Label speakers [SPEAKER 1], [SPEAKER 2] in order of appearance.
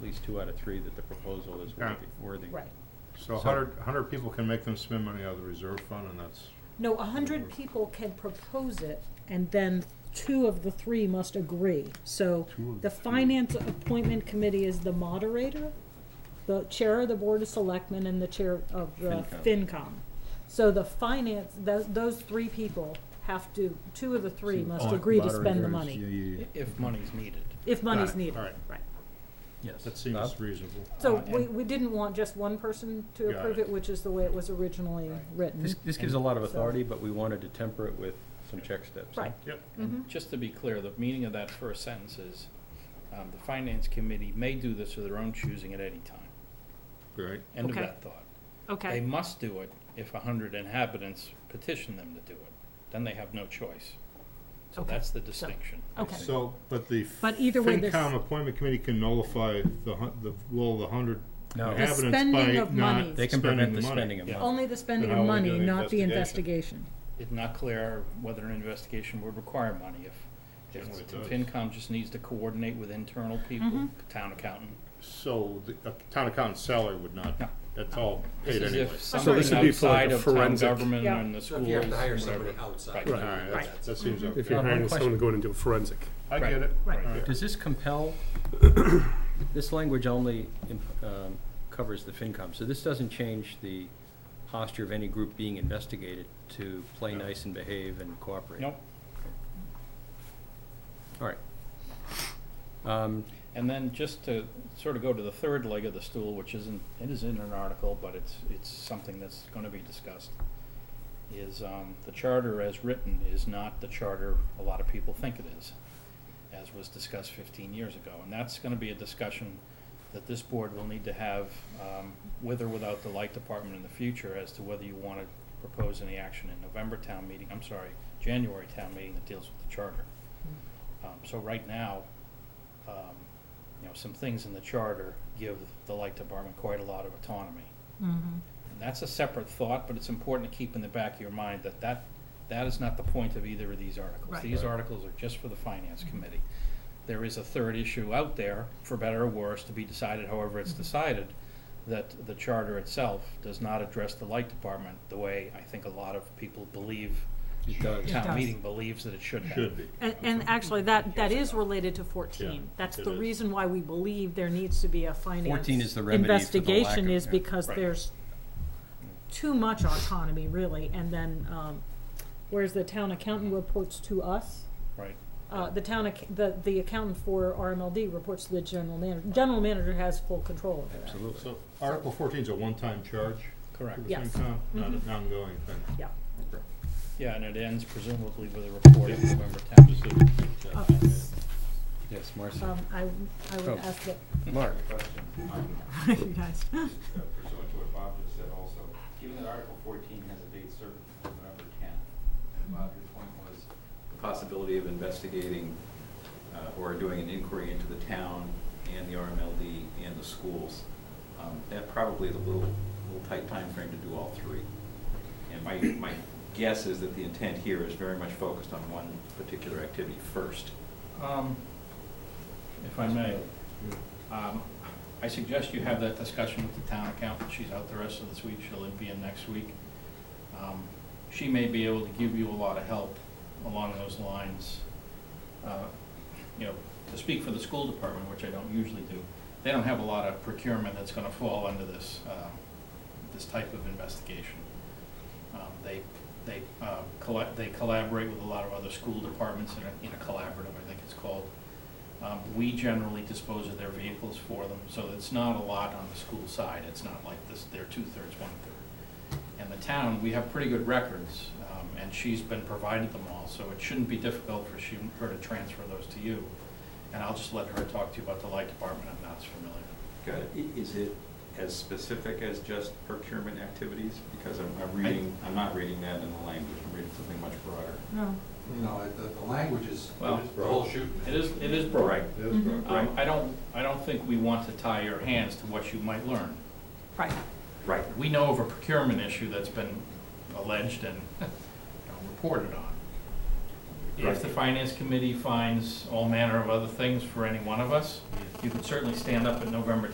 [SPEAKER 1] least two out of three that the proposal is
[SPEAKER 2] Yeah.
[SPEAKER 1] worthy, worthy.
[SPEAKER 3] Right.
[SPEAKER 2] So a
[SPEAKER 1] So-
[SPEAKER 2] hundred, a hundred people can make them spend money out of the reserve fund, and that's,
[SPEAKER 3] No, a hundred people can propose it, and then two of the three must agree. So
[SPEAKER 2] Two of the
[SPEAKER 3] the
[SPEAKER 2] three.
[SPEAKER 3] finance appointment committee is the moderator, the chair of the board of selectmen, and the chair of the
[SPEAKER 1] FinCom.
[SPEAKER 3] FinCom. So the finance, those, those three people have to, two of the three must
[SPEAKER 2] Oh,
[SPEAKER 3] agree to spend the
[SPEAKER 2] moderators,
[SPEAKER 3] money.
[SPEAKER 2] Yeah, yeah, yeah.
[SPEAKER 4] If money's needed.
[SPEAKER 3] If money's
[SPEAKER 2] it.
[SPEAKER 3] needed,
[SPEAKER 2] All right.
[SPEAKER 3] right.
[SPEAKER 4] Yes.
[SPEAKER 2] That
[SPEAKER 1] Bob?
[SPEAKER 2] seems reasonable.
[SPEAKER 3] So
[SPEAKER 4] Uh,
[SPEAKER 3] we,
[SPEAKER 4] and-
[SPEAKER 3] we didn't want just one person to
[SPEAKER 2] Got
[SPEAKER 3] approve
[SPEAKER 2] it.
[SPEAKER 3] it, which is the way it was originally
[SPEAKER 4] Right.
[SPEAKER 3] written.
[SPEAKER 1] This, this gives a lot of
[SPEAKER 3] So-
[SPEAKER 1] authority, but we wanted to temper it with some check steps.
[SPEAKER 3] Right.
[SPEAKER 2] Yep.
[SPEAKER 3] Mhm.
[SPEAKER 4] Just to be clear, the meaning of that first sentence is, um, the finance committee may do this of their own choosing at any time.
[SPEAKER 2] Right.
[SPEAKER 4] End of
[SPEAKER 3] Okay.
[SPEAKER 4] that thought. They
[SPEAKER 3] Okay,
[SPEAKER 4] must do it if a hundred inhabitants petition them to do it. Then they have no choice. So
[SPEAKER 3] Okay. Oh.
[SPEAKER 4] that's the distinction.
[SPEAKER 3] okay.
[SPEAKER 2] So, but the
[SPEAKER 3] But either way, this-
[SPEAKER 2] FinCom appointment committee can nullify the hun, the, well, the hundred
[SPEAKER 1] No. The
[SPEAKER 2] inhabitants
[SPEAKER 3] spending
[SPEAKER 2] by
[SPEAKER 3] of
[SPEAKER 2] not
[SPEAKER 3] monies.
[SPEAKER 1] They can
[SPEAKER 2] spending
[SPEAKER 1] prevent
[SPEAKER 2] the
[SPEAKER 1] the
[SPEAKER 2] money.
[SPEAKER 1] spending of
[SPEAKER 4] Yeah.
[SPEAKER 1] money.
[SPEAKER 3] Only the spending
[SPEAKER 2] Then
[SPEAKER 3] of
[SPEAKER 2] how are we
[SPEAKER 3] money,
[SPEAKER 2] doing the
[SPEAKER 3] not the
[SPEAKER 2] investigation?
[SPEAKER 3] investigation.
[SPEAKER 4] It's not clear whether an investigation would require money. If, if
[SPEAKER 2] Generally it
[SPEAKER 4] the
[SPEAKER 2] does.
[SPEAKER 4] FinCom just needs to coordinate with internal people,
[SPEAKER 3] Mm-hmm.
[SPEAKER 4] town accountant.
[SPEAKER 2] So the a town accountant's salary would not,
[SPEAKER 4] No.
[SPEAKER 2] that's all
[SPEAKER 4] This
[SPEAKER 2] paid
[SPEAKER 4] is
[SPEAKER 2] anyway.
[SPEAKER 4] if
[SPEAKER 5] So this
[SPEAKER 4] something
[SPEAKER 5] would be for like
[SPEAKER 4] outside
[SPEAKER 5] a
[SPEAKER 4] of town
[SPEAKER 5] forensic-
[SPEAKER 4] government
[SPEAKER 3] Yeah.
[SPEAKER 4] and the
[SPEAKER 5] So
[SPEAKER 4] schools.
[SPEAKER 5] if you have to hire somebody
[SPEAKER 4] whatever.
[SPEAKER 5] outside.
[SPEAKER 2] All
[SPEAKER 4] Right.
[SPEAKER 2] right, that's- that seems
[SPEAKER 5] If you're
[SPEAKER 2] okay.
[SPEAKER 5] hiring
[SPEAKER 1] question.
[SPEAKER 5] someone to go in and do a forensic.
[SPEAKER 2] I get it.
[SPEAKER 3] Right.
[SPEAKER 2] All
[SPEAKER 1] Does this compel, this language only imp- um, covers the FinCom, so this doesn't change the posture of any group being investigated to play
[SPEAKER 2] No.
[SPEAKER 1] nice and behave and cooperate?
[SPEAKER 4] Nope.
[SPEAKER 1] All right. Um,
[SPEAKER 4] And then just to sort of go to the third leg of the stool, which isn't, it is in an article, but it's, it's something that's gonna be discussed, is, um, the charter as written is not the charter a lot of people think it is, as was discussed fifteen years ago. And that's gonna be a discussion that this board will need to have, um, with or without the light department in the future as to whether you wanna propose any action in November town meeting, I'm sorry, January town meeting that deals with the charter. Um, so right now, um, you know, some things in the charter give the light department quite a lot of autonomy.
[SPEAKER 3] Mm-hmm.
[SPEAKER 4] And that's a separate thought, but it's important to keep in the back of your mind that that, that is not the point of either of these articles.
[SPEAKER 3] Right. Mm-hmm.
[SPEAKER 4] These
[SPEAKER 2] Right.
[SPEAKER 4] articles are just for the finance committee. There is a third issue out there, for better or worse, to be decided however it's
[SPEAKER 3] Mm-hmm.
[SPEAKER 4] decided, that the charter itself does not address the light department the way I think a lot of people believe,
[SPEAKER 1] it does.
[SPEAKER 3] Yeah. does.
[SPEAKER 4] town meeting believes that it should
[SPEAKER 2] right.
[SPEAKER 4] have.
[SPEAKER 2] Should be.
[SPEAKER 3] And, and actually, that, that is related to
[SPEAKER 2] Yeah,
[SPEAKER 3] fourteen. That's
[SPEAKER 2] it
[SPEAKER 3] the
[SPEAKER 2] is.
[SPEAKER 3] reason why we believe there needs to be a finance.
[SPEAKER 1] 14 is the remedy for the lack
[SPEAKER 3] Investigation
[SPEAKER 1] of-
[SPEAKER 3] is
[SPEAKER 1] yeah.
[SPEAKER 3] because
[SPEAKER 4] Right.
[SPEAKER 3] there's too much autonomy, really, and then, um, whereas the town accountant reports to us,
[SPEAKER 4] Right,
[SPEAKER 3] uh, the town, ac- the, the accountant for RMLD reports to the general manager. General manager has full control over that.
[SPEAKER 1] Absolutely.
[SPEAKER 2] So Article fourteen's a one-time charge
[SPEAKER 4] correct.
[SPEAKER 2] for the
[SPEAKER 3] Yes. Mm-hmm.
[SPEAKER 2] FinCom, not an ongoing thing.
[SPEAKER 3] Yeah,
[SPEAKER 4] Yeah, and it ends presumably with a report of November tenth.
[SPEAKER 3] okay.
[SPEAKER 1] Yes, Marcy.
[SPEAKER 3] Um, I, I
[SPEAKER 1] Oh.
[SPEAKER 3] would ask that,
[SPEAKER 1] Mark,
[SPEAKER 3] you guys.
[SPEAKER 6] uh, pursuant to what Bob just said also, given that Article fourteen has a date certain of November tenth, and Bob, your point was the possibility of investigating uh, or doing an inquiry into the town and the RMLD and the schools, um, that probably is a little, little tight timeframe to do all three. And my, my guess is that the intent here is very much focused on one particular activity first.
[SPEAKER 4] Um, If I may, um, I suggest you have that discussion with the town accountant. She's out the rest of this week. She'll be in next week. Um, She may be able to give you a lot of help along those lines. Uh, You know, to speak for the school department, which I don't usually do, they don't have a lot of procurement that's gonna fall under this, um, this type of investigation. Um, They, they uh, colla- they collaborate with a lot of other school departments in a, in a collaborative, I think it's called. Um, We generally dispose of their vehicles for them, so it's not a lot on the school side. It's not like this, they're two-thirds, one-third. And the town, we have pretty good records, um, and she's been provided them all, so it shouldn't be difficult for she, her to transfer those to you. And I'll just let her talk to you about the light department. I'm not as familiar.
[SPEAKER 6] Got it. I- Is it as specific as just procurement activities? Because I'm, I'm reading, I'm not reading that in the language, I'm reading something much broader.
[SPEAKER 3] No.
[SPEAKER 5] No, the, the language is,
[SPEAKER 4] Well,
[SPEAKER 5] the whole shoot.
[SPEAKER 4] It is, it is broad.
[SPEAKER 6] Right.
[SPEAKER 2] That's
[SPEAKER 3] Mm-hmm.
[SPEAKER 2] right.
[SPEAKER 4] Um, I don't, I don't think we want to tie your hands to what you might learn.
[SPEAKER 3] Right.
[SPEAKER 6] Right.
[SPEAKER 4] We know of a procurement issue that's been alleged and you know, reported on. If the finance committee finds all manner of other things for any one of us, you could certainly stand up at November